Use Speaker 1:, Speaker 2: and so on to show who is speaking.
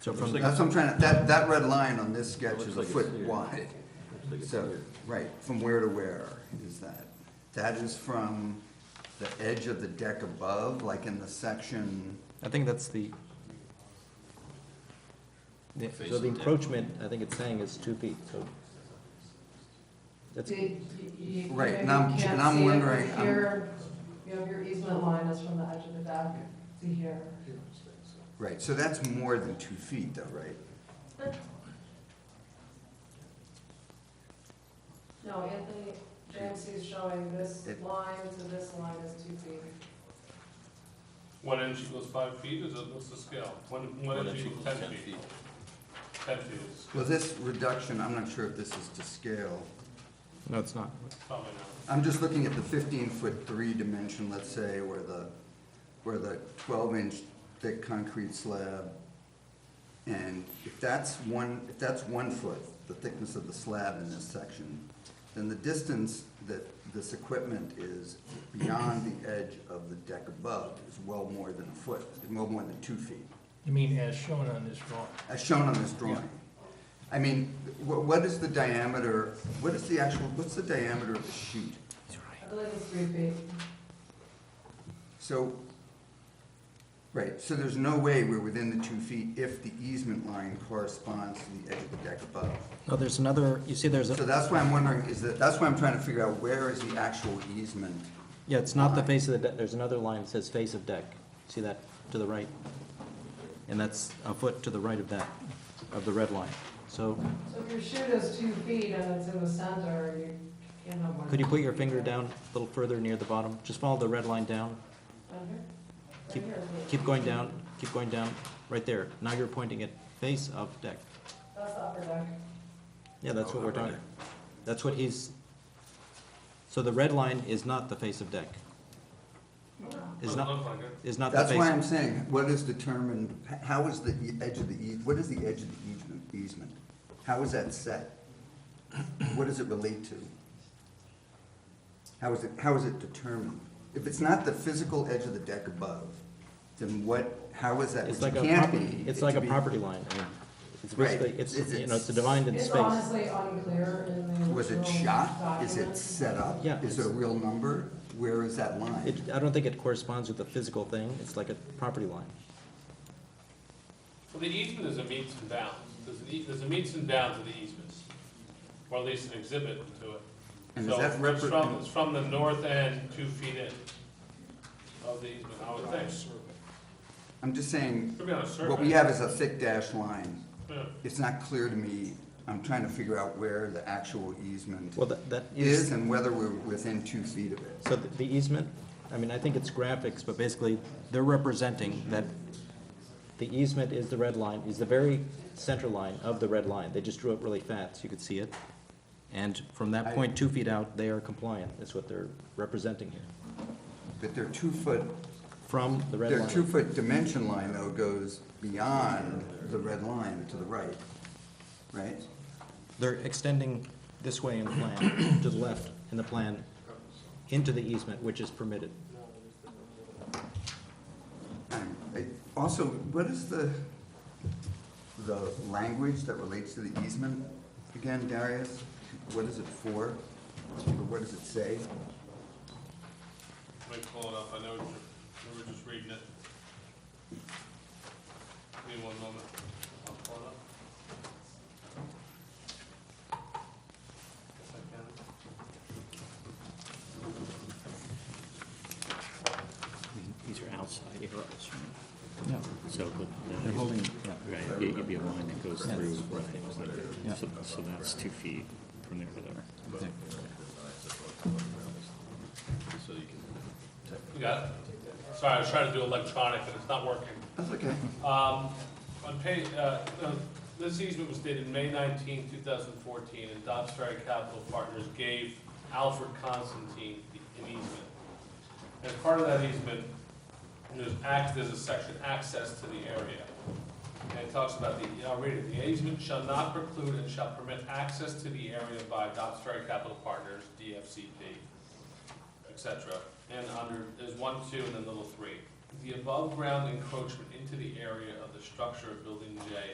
Speaker 1: So
Speaker 2: Looks
Speaker 1: from,
Speaker 2: like
Speaker 1: that's what I'm trying to, that, that red line on this sketch
Speaker 2: Looks
Speaker 1: is a
Speaker 2: like it's
Speaker 1: foot
Speaker 2: here.
Speaker 1: wide.
Speaker 2: Looks like it's
Speaker 1: So,
Speaker 2: here.
Speaker 1: right, from where to where is that? That is from the edge of the deck above, like in the section,
Speaker 3: I think that's the. Yeah,
Speaker 4: Face
Speaker 3: so
Speaker 4: of
Speaker 3: the
Speaker 4: the deck.
Speaker 3: encroachment, I think it's saying is two feet, so. That's,
Speaker 5: They- you- you- you
Speaker 1: Right,
Speaker 5: know,
Speaker 1: and
Speaker 5: you
Speaker 1: I'm-
Speaker 5: can't
Speaker 1: and I'm
Speaker 5: see it
Speaker 1: wondering, um,
Speaker 5: from
Speaker 1: I'm-
Speaker 5: Here, you know, your easement line is from the edge of the deck to here.
Speaker 1: right, so that's more than two feet though, right?
Speaker 5: No, Anthony, Dempsey is showing this
Speaker 1: It-
Speaker 5: line to this line is two feet.
Speaker 6: One inch equals five feet, is it, what's the scale? One, one inch equals ten feet. Ten feet is
Speaker 1: Well, this reduction, I'm not sure if this is to scale.
Speaker 3: no, it's not.
Speaker 6: probably not.
Speaker 1: I'm just looking at the fifteen foot three dimension, let's say, where the, where the twelve inch thick concrete slab. And if that's one, if that's one foot, the thickness of the slab in this section, then the distance that this equipment is beyond the edge of the deck above is well more than a foot, well more than two feet,
Speaker 7: You mean as shown on this drawing?
Speaker 1: as shown on this drawing. I mean, wh- what is the diameter, what is the actual, what's the diameter of the chute?
Speaker 5: I believe it's three feet.
Speaker 1: So, right, so there's no way we're within the two feet if the easement line corresponds to the edge of the deck above.
Speaker 3: No, Oh, there's another, you see there's
Speaker 1: So
Speaker 3: a,
Speaker 1: that's why I'm wondering, is that, that's why I'm trying to figure out where is the actual easement?
Speaker 3: yeah, it's not the face of the deck, there's another line that says face of deck. See that to the right? And that's a foot to the right of that, of the red line. So
Speaker 5: So if your shoot is two feet and it's in the center, you can't have more.
Speaker 3: could you
Speaker 5: than
Speaker 3: put
Speaker 5: two
Speaker 3: your
Speaker 5: feet
Speaker 3: finger
Speaker 5: there.
Speaker 3: down a little further near the bottom? Just follow the red line down.
Speaker 5: Down here? Right
Speaker 3: Keep-
Speaker 5: here is what-
Speaker 3: Keep going down, keep going down, right there. Now you're pointing at face of deck.
Speaker 5: That's the upper deck.
Speaker 3: Yeah, that's what we're
Speaker 4: upper
Speaker 3: talking.
Speaker 4: deck.
Speaker 3: That's what he's, so the red line is not the face of deck. Is
Speaker 6: Doesn't
Speaker 3: not,
Speaker 6: look like it.
Speaker 3: is not the
Speaker 1: That's why I'm
Speaker 3: face.
Speaker 1: saying, what is determined, h- how is the e- edge of the eas, what is the edge of the easement, easement? How is that set? What does it relate to? How is it, how is it determined? If it's not the physical edge of the deck above, then what, how is that,
Speaker 3: It's
Speaker 1: which
Speaker 3: like a
Speaker 1: can't be?
Speaker 3: property, it's
Speaker 1: it
Speaker 3: like a
Speaker 1: be-
Speaker 3: property line. I mean, It's
Speaker 1: Right.
Speaker 3: basically, it's,
Speaker 1: It's-
Speaker 3: you know,
Speaker 1: it's-
Speaker 3: it's defined in
Speaker 5: It's
Speaker 3: space.
Speaker 5: honestly unclear in the original
Speaker 1: Was it shot? Is it
Speaker 5: document.
Speaker 1: set up?
Speaker 3: Yeah,
Speaker 1: Is it a
Speaker 3: it's-
Speaker 1: real number? Where is that line?
Speaker 3: It, I don't think it corresponds with the physical thing. It's like a property line.
Speaker 6: Well, the easement is a meets and bounds, there's an e, there's a meets and bounds of the easement, or at least an exhibit to it.
Speaker 1: And is
Speaker 6: So
Speaker 1: that
Speaker 6: it's from,
Speaker 1: repre-
Speaker 6: it's from the north end, two feet in of the easement, I would think.
Speaker 1: I'm just saying,
Speaker 6: Could be on a survey.
Speaker 1: what we have is a thick dashed line.
Speaker 6: Yeah.
Speaker 1: It's not clear to me, I'm trying to figure out where the actual easement
Speaker 3: Well, that, that is.
Speaker 1: is and whether we're within two feet of it.
Speaker 3: So the the easement, I mean, I think it's graphics, but basically, they're representing that the easement is the red line, is the very center line of the red line. They just drew it really fat, so you could see it. And from that point, two feet out, they are compliant, is what they're representing here,
Speaker 1: But their two-foot,
Speaker 3: from the red
Speaker 1: their
Speaker 3: line.
Speaker 1: two-foot dimension line though goes beyond the red line to the right, right?
Speaker 3: They're extending this way in the plan, to the left in the plan, into the easement, which is permitted.
Speaker 1: And I- Also, what is the, the language that relates to the easement again, Darius? What is it for? Or what does it say?
Speaker 6: Let me pull it up, I know, what you're- we were just reading it. Give me one moment, I'll pull it up. Guess I can.
Speaker 4: These are outside arrows,
Speaker 3: No,
Speaker 4: right? So, but.
Speaker 3: they're holding, yeah.
Speaker 4: Right, it would be a line that goes
Speaker 3: Yeah.
Speaker 4: through,
Speaker 3: Yeah.
Speaker 4: right, so, so that's two feet from there to there.
Speaker 6: You got it? Sorry, I was trying to do electronic and it's not working.
Speaker 1: That's okay.
Speaker 6: Um, on page, uh, uh, this easement was dated May 19, 2014, and Dobbs Ferry Capital Partners gave Alfred Constantine the- an easement. As part of that easement, there's act, there's a section, access to the area. And it talks about the, I'll read it, the easement shall not preclude and shall permit access to the area by Dobbs Ferry Capital Partners, DFCP, et cetera. And under, there's one, two, and then little three. the above-ground encroachment into the area of the structure of Building J